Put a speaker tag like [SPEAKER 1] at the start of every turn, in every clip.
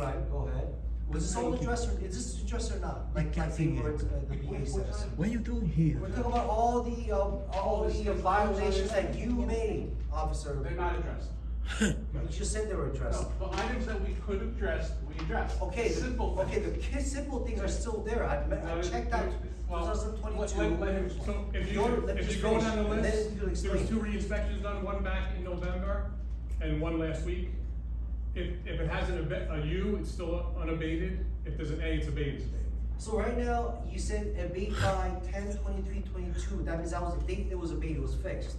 [SPEAKER 1] Right, go ahead. Was this all
[SPEAKER 2] Thank you.
[SPEAKER 1] addressed or, is this addressed or not? Like,
[SPEAKER 2] can't
[SPEAKER 1] like
[SPEAKER 2] see
[SPEAKER 1] the
[SPEAKER 2] here.
[SPEAKER 1] words, uh, the VA says.
[SPEAKER 2] What are you doing here?
[SPEAKER 1] We're talking about all the, um, all the violations that you made, Officer.
[SPEAKER 3] They're not addressed.
[SPEAKER 1] You just said they were addressed.
[SPEAKER 3] No, the items that we could have addressed, we addressed.
[SPEAKER 1] Okay, the-
[SPEAKER 3] Simple.
[SPEAKER 1] okay, the
[SPEAKER 3] things.
[SPEAKER 1] ki- simple things are still there. I, me- I
[SPEAKER 3] No,
[SPEAKER 1] checked out
[SPEAKER 3] well, let- let- let him
[SPEAKER 1] 2022.
[SPEAKER 3] explain.
[SPEAKER 4] So if you,
[SPEAKER 1] Your- let me
[SPEAKER 4] if you
[SPEAKER 1] just
[SPEAKER 4] go
[SPEAKER 1] finish,
[SPEAKER 4] down the
[SPEAKER 1] and
[SPEAKER 4] list,
[SPEAKER 1] then you
[SPEAKER 4] there was
[SPEAKER 1] explain.
[SPEAKER 4] two re-inspections done, one back in November and one last week. If, if it has an abe- a U, it's still unabated. If there's an A, it's abated, it's abated.
[SPEAKER 1] So right now, you said abate by ten twenty-three twenty-two, that means that was the date it was abated, it was fixed.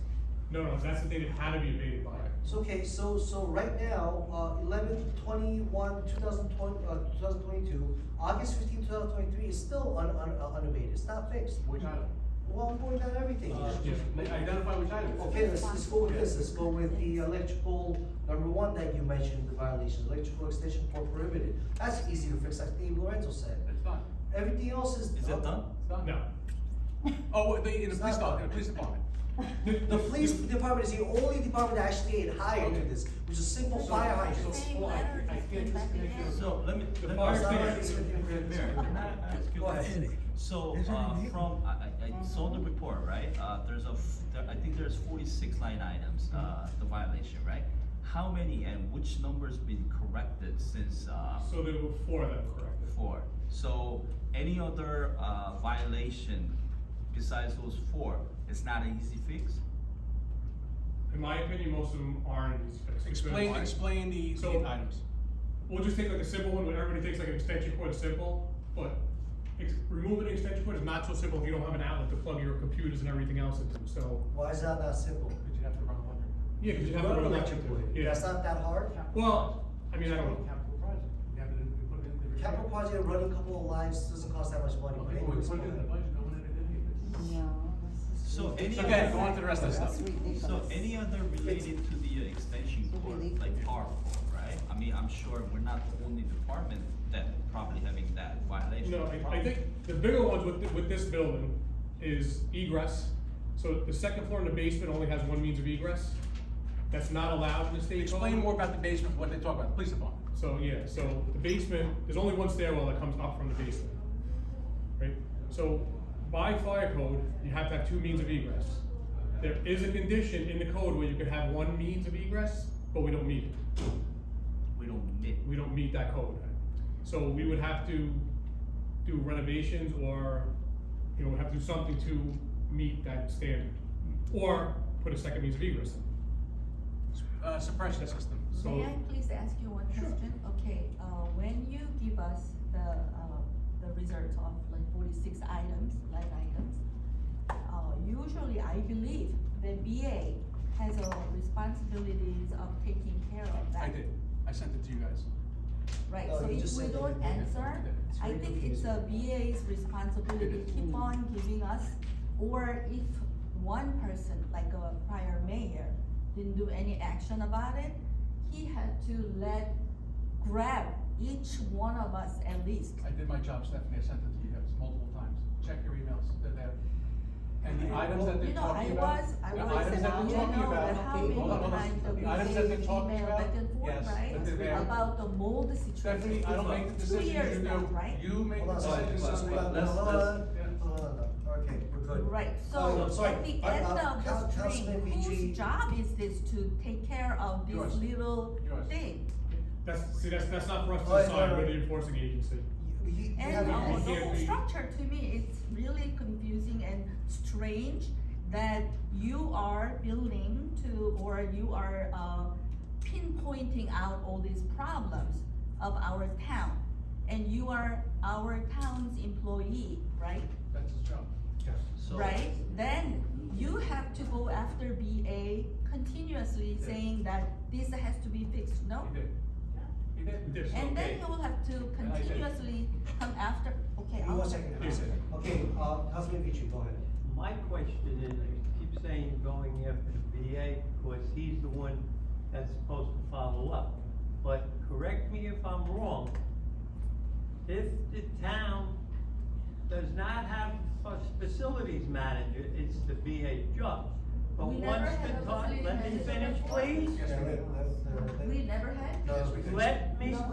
[SPEAKER 4] No, no, that's the thing that had to be abated by.
[SPEAKER 1] So, okay, so, so right now, uh, eleven twenty-one, two thousand twenty, uh, two thousand twenty-two, August fifteen, two thousand twenty-three is still un, un, uh, unabated, it's not fixed.
[SPEAKER 3] Which item?
[SPEAKER 1] Well, I'm going down everything.
[SPEAKER 3] Uh, just Identify which item.
[SPEAKER 1] Okay, let's, let's go with this, let's go with the electrical, number one that you mentioned, the violations, electrical extension port prohibited. That's easy to fix, like Dave Lorenzo said.
[SPEAKER 3] It's not,
[SPEAKER 1] Everything else is.
[SPEAKER 5] Is it done?
[SPEAKER 3] it's not.
[SPEAKER 4] No.
[SPEAKER 3] Oh, wait, the, in the
[SPEAKER 1] It's
[SPEAKER 3] police
[SPEAKER 1] not-
[SPEAKER 3] department, the police department.
[SPEAKER 1] The police department is the only department that actually had hired to this, which is simple fire hydrants.
[SPEAKER 3] So, well, I- I can't just connect you.
[SPEAKER 5] So let me.
[SPEAKER 4] The
[SPEAKER 5] let me-
[SPEAKER 4] fire
[SPEAKER 5] Mayor,
[SPEAKER 1] station-
[SPEAKER 5] Mayor, can I ask you
[SPEAKER 1] Go
[SPEAKER 5] this?
[SPEAKER 1] ahead.
[SPEAKER 5] So,
[SPEAKER 2] Is it
[SPEAKER 5] uh,
[SPEAKER 2] in here?
[SPEAKER 5] from, I, I, I saw the report, right? Uh, there's a, f- there- I think there's forty-six line items, uh, the violation, right? How many and which number's been corrected since, uh,
[SPEAKER 4] So there were four of them corrected.
[SPEAKER 5] four? So any other, uh, violation besides those four, it's not an easy fix?
[SPEAKER 4] In my opinion, most of them aren't as fixed.
[SPEAKER 3] Explain,
[SPEAKER 4] Because-
[SPEAKER 3] explain the,
[SPEAKER 4] So-
[SPEAKER 3] the items.
[SPEAKER 4] We'll just take like a simple one, where everybody thinks like an extension cord is simple, but ex- removing an extension cord is not so simple if you don't have an outlet to plug your computers and everything else into, so.
[SPEAKER 1] Why is that not simple?
[SPEAKER 3] Did you have to run one?
[SPEAKER 4] Yeah, because you have to
[SPEAKER 1] Run
[SPEAKER 4] run
[SPEAKER 1] an
[SPEAKER 4] electric
[SPEAKER 1] electric
[SPEAKER 4] cord,
[SPEAKER 1] cord.
[SPEAKER 4] yeah.
[SPEAKER 1] That's not that hard.
[SPEAKER 4] Well, I mean, I don't know.
[SPEAKER 3] Capital project. We have it in, we put it in the.
[SPEAKER 1] Capital project, running a couple of lines doesn't cost that much money. but
[SPEAKER 3] Okay, we
[SPEAKER 1] anyways,
[SPEAKER 3] put it
[SPEAKER 1] go
[SPEAKER 3] in the
[SPEAKER 1] ahead.
[SPEAKER 3] budget, no one had it in here.
[SPEAKER 6] No, this is.
[SPEAKER 5] So any
[SPEAKER 3] It's
[SPEAKER 5] other.
[SPEAKER 3] okay, go on to the rest of the
[SPEAKER 6] That's
[SPEAKER 3] stuff.
[SPEAKER 6] ridiculous.
[SPEAKER 5] So any other related to the uh, extension
[SPEAKER 6] Would
[SPEAKER 5] cord,
[SPEAKER 6] be legal.
[SPEAKER 5] like our cord, right? I mean, I'm sure we're not the only department that probably having that violation.
[SPEAKER 4] No, I, I think the bigger ones with, thi- with this building is egress. So the second floor and the basement only has one means of egress. That's not allowed in the state code.
[SPEAKER 3] Explain more about the basement, what they talk about, the police department.
[SPEAKER 4] So, yeah, so the basement, there's only one stairwell that comes up from the basement, right? So by fire code, you have to have two means of egress. There is a condition in the code where you could have one means of egress, but we don't meet it.
[SPEAKER 5] We don't need.
[SPEAKER 4] We don't meet that code. So we would have to do renovations or, you know, have to do something to meet that standard. Or put a second means of egress in.
[SPEAKER 3] Uh, suppression system.
[SPEAKER 4] So-
[SPEAKER 7] May I please ask you one question? Okay, uh, when you give us the, uh, the results of like forty-six items, line items, uh, usually I believe the BA has a responsibilities of taking care of that.
[SPEAKER 3] I did, I sent it to you guys.
[SPEAKER 7] Right,
[SPEAKER 1] No,
[SPEAKER 7] so
[SPEAKER 1] you just
[SPEAKER 7] if we
[SPEAKER 1] said that
[SPEAKER 7] don't
[SPEAKER 1] you didn't.
[SPEAKER 7] answer,
[SPEAKER 3] It's
[SPEAKER 7] I
[SPEAKER 3] very
[SPEAKER 7] think it's a BA's responsibility,
[SPEAKER 3] It is.
[SPEAKER 1] Mm-hmm.
[SPEAKER 7] keep on giving us, or if one person, like a prior mayor, didn't do any action about it, he had to let, grab each one of us at least.
[SPEAKER 3] I did my job, Stephanie, I sent it to you guys multiple times, check your emails, they're there. And the items that
[SPEAKER 7] You
[SPEAKER 3] they're
[SPEAKER 7] know, I
[SPEAKER 3] talking about.
[SPEAKER 7] was, I
[SPEAKER 3] the
[SPEAKER 7] was,
[SPEAKER 3] items
[SPEAKER 7] and
[SPEAKER 3] that
[SPEAKER 7] I
[SPEAKER 3] they're
[SPEAKER 7] do
[SPEAKER 3] talking
[SPEAKER 7] know
[SPEAKER 3] about-
[SPEAKER 7] that how
[SPEAKER 3] hold
[SPEAKER 7] many
[SPEAKER 3] on, hold on.
[SPEAKER 7] times that we
[SPEAKER 3] The items that
[SPEAKER 7] gave
[SPEAKER 3] they're talking
[SPEAKER 7] email
[SPEAKER 3] about,
[SPEAKER 7] back and forth,
[SPEAKER 3] yes,
[SPEAKER 7] right?
[SPEAKER 3] but they're there.
[SPEAKER 7] About the mold
[SPEAKER 3] Stephanie,
[SPEAKER 7] situation.
[SPEAKER 3] I don't make the
[SPEAKER 7] Two
[SPEAKER 3] decisions,
[SPEAKER 7] years
[SPEAKER 3] you
[SPEAKER 7] now,
[SPEAKER 3] do,
[SPEAKER 7] right?
[SPEAKER 3] you make
[SPEAKER 1] Hold
[SPEAKER 3] the
[SPEAKER 1] on, sorry,
[SPEAKER 3] decisions.
[SPEAKER 1] hold on,
[SPEAKER 3] Stephanie.
[SPEAKER 1] hold on,
[SPEAKER 5] let's-
[SPEAKER 1] hold on,
[SPEAKER 5] let's-
[SPEAKER 3] yeah.
[SPEAKER 1] hold on, hold on. okay, we're good.
[SPEAKER 7] Right,
[SPEAKER 1] Oh,
[SPEAKER 7] so
[SPEAKER 1] I'm sorry.
[SPEAKER 7] at the
[SPEAKER 1] I-
[SPEAKER 7] end
[SPEAKER 1] uh,
[SPEAKER 7] of
[SPEAKER 1] Council-
[SPEAKER 7] the
[SPEAKER 1] Councilman
[SPEAKER 7] string,
[SPEAKER 1] Vijay-
[SPEAKER 7] whose job is this to take care of
[SPEAKER 3] Yours.
[SPEAKER 7] this little
[SPEAKER 3] Yours.
[SPEAKER 7] thing?
[SPEAKER 4] That's, see, that's, that's not for us to
[SPEAKER 1] Alright,
[SPEAKER 4] decide, we're
[SPEAKER 1] alright.
[SPEAKER 4] the enforcing agency.
[SPEAKER 1] You- you- you have a-
[SPEAKER 7] And
[SPEAKER 4] no,
[SPEAKER 7] uh, the
[SPEAKER 4] Yeah,
[SPEAKER 7] whole
[SPEAKER 4] we-
[SPEAKER 7] structure to me is really confusing and strange that you are building to, or you are, uh, pinpointing out all these problems of our town. And you are our town's employee, right?
[SPEAKER 3] That's his job.
[SPEAKER 5] So-
[SPEAKER 7] right? Then you have to go after BA continuously
[SPEAKER 3] Yeah.
[SPEAKER 7] saying that this has to be fixed, no?
[SPEAKER 3] He did. He did.
[SPEAKER 4] He did.
[SPEAKER 7] And
[SPEAKER 3] Okay.
[SPEAKER 7] then you will have to
[SPEAKER 3] And I did.
[SPEAKER 7] continuously come after, okay,
[SPEAKER 1] Give me
[SPEAKER 7] I'll.
[SPEAKER 1] one second,
[SPEAKER 4] Yes, sir.
[SPEAKER 1] okay, uh, Councilman Vichy, go ahead.
[SPEAKER 8] My question is, you keep saying going after the VA because he's the one that's supposed to follow up. But correct me if I'm wrong, if the town does not have a facilities manager, it's the VA job. But
[SPEAKER 7] We never
[SPEAKER 8] once
[SPEAKER 7] had
[SPEAKER 8] the
[SPEAKER 7] a
[SPEAKER 8] time,
[SPEAKER 7] facilities
[SPEAKER 8] let me
[SPEAKER 7] manager
[SPEAKER 8] finish,
[SPEAKER 7] before.
[SPEAKER 8] please.
[SPEAKER 3] Yes,
[SPEAKER 1] Yeah,
[SPEAKER 3] we
[SPEAKER 1] let-
[SPEAKER 3] did.
[SPEAKER 1] let- let-
[SPEAKER 7] We never had.
[SPEAKER 1] uh, No, we didn't.
[SPEAKER 8] Let me
[SPEAKER 7] No,